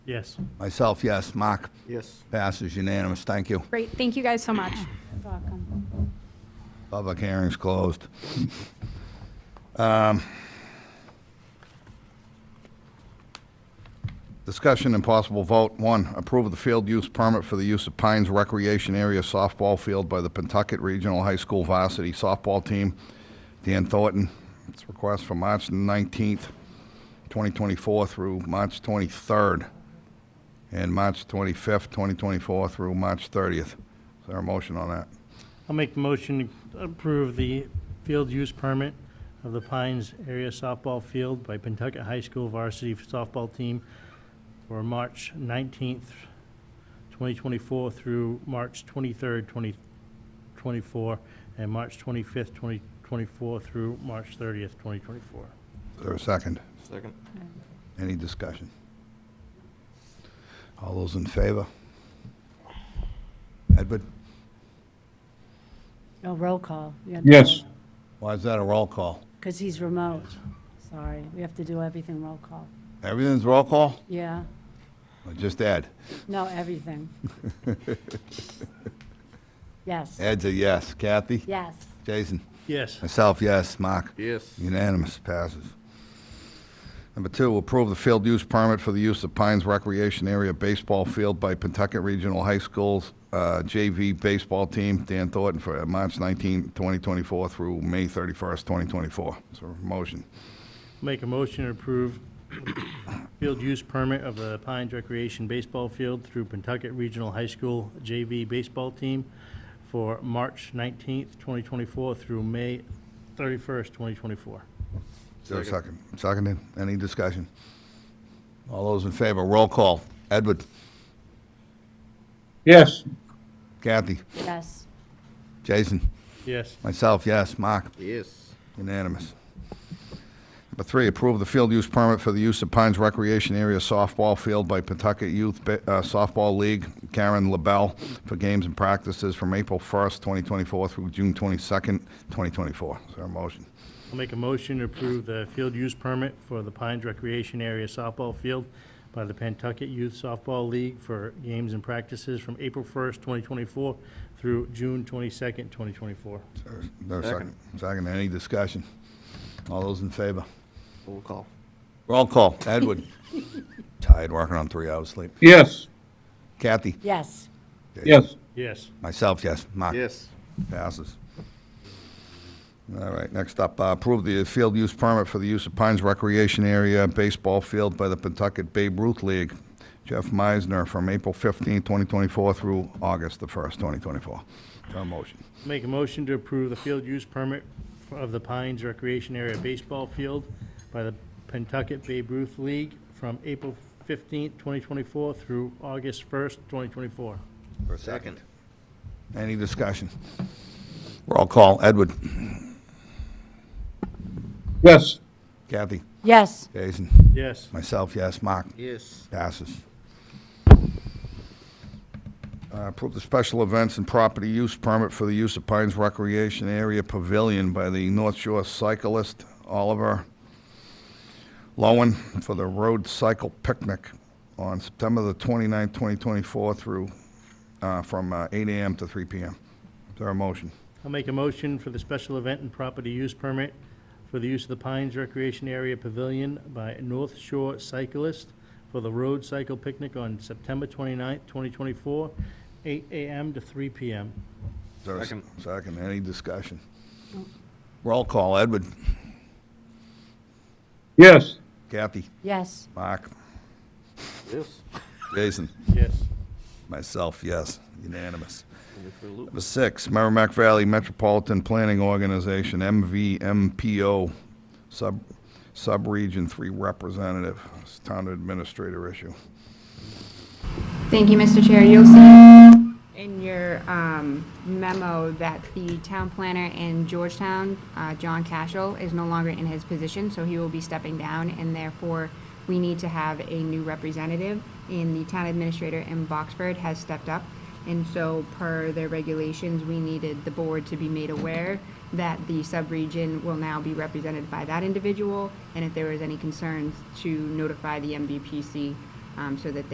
Yes. Myself, yes. Mark? Yes. Passes unanimous. Thank you. Great, thank you guys so much. Public hearing's closed. Um, Discussion and possible vote, one, approve of the field use permit for the use of Pines Recreation Area softball field by the Pentucket Regional High School varsity softball team. Dan Thornton, it's request for March 19th, 2024 through March 23rd, and March 25th, 2024 through March 30th. Is there a motion on that? I'll make the motion to approve the field use permit of the Pines Area Softball Field by Pentucket High School varsity softball team for March 19th, 2024 through March 23rd, 2024, and March 25th, 2024 through March 30th, 2024. Is there a second? Second. Any discussion? All those in favor? Edward? Oh, roll call. Yes. Why is that a roll call? Because he's remote. Sorry, we have to do everything roll call. Everything's roll call? Yeah, Or Just Ed? no, everything. Yes, Ed's a yes. Kathy? yes. Jason? Yes. Myself, yes. Mark? Yes. Unanimous, passes. Number two, approve the field use permit for the use of Pines Recreation Area Baseball Field by Pentucket Regional High School's uh, JV baseball team, Dan Thornton, for uh, March 19, 2024 through May 31st, 2024. Is there a motion? Make a motion to approve field use permit of the Pines Recreation Baseball Field through Pentucket Regional High School JV Baseball Team for March 19th, 2024 through May 31st, 2024. Is there a second? Seconded. Any discussion? All those in favor, roll call. Edward, Yes. Kathy, Yes, Jason, Yes. myself, yes. Mark? Yes. Unanimous. Number three, approve the field use permit for the use of Pines Recreation Area softball field by Pawtucket Youth Ba- uh, Softball League, Karen LaBelle, for games and practices from April 1st, 2024 through June 22nd, 2024. Is there a motion? I'll make a motion to approve the field use permit for the Pines Recreation Area Softball Field by the Pentucket Youth Softball League for games and practices from April 1st, 2024 through June 22nd, 2024. Is there- is there a second? Second, any discussion? All those in favor? Roll call. Roll call. Edward? Tired, working on three hours sleep. Yes. Kathy? yes, Yes. Yes. Myself, yes. Mark? Yes. Passes. All right, next up, uh, approve the field use permit for the use of Pines Recreation Area Baseball Field by the Pentucket Babe Ruth League. Jeff Meisner from April 15, 2024 through August the 1st, 2024. Is there a motion? Make a motion to approve the field use permit f- of the Pines Recreation Area Baseball Field by the Pentucket Babe Ruth League from April 15th, 2024 through August 1st, 2024. For a Any discussion? Roll call, Edward. Yes. Kathy. yes, Jason. Yes. Myself, yes. Mark. Yes. Passes. Uh, Approve the special events and property use permit for the use of Pines Recreation Area Pavilion by the North Shore cyclist Oliver Lowen for the road cycle picnic on September the 29th, 2024 through, uh, from uh, 8 AM to 3 PM. Is there a motion? I'll make a motion for the special event and property use permit for the use of the Pines Recreation Area Pavilion by North Shore Cyclist for the road cycle picnic on September 29th, 2024, 8 a.m. to 3 p.m. Is there a s- Second. Second, any discussion? Roll call, Edward. Yes. Kathy. yes, Mark. Yes. Jason. Yes. Myself, yes, unanimous. Go for a loop. Number six, Merrimack Valley Metropolitan Planning Organization, MVMPO, sub, sub-region three representative, It's town administrator issue. Thank you, Mr. Chair. You'll see in your um, memo that the town planner in Georgetown, uh, John Cashel, is no longer in his position, so he will be stepping down, and therefore, we need to have a new representative. And the town administrator in Boxford has stepped up. And so, per their regulations, we needed the board to be made aware that the subregion will now be represented by that individual, and if there was any concerns, to notify the MVPC um, so that they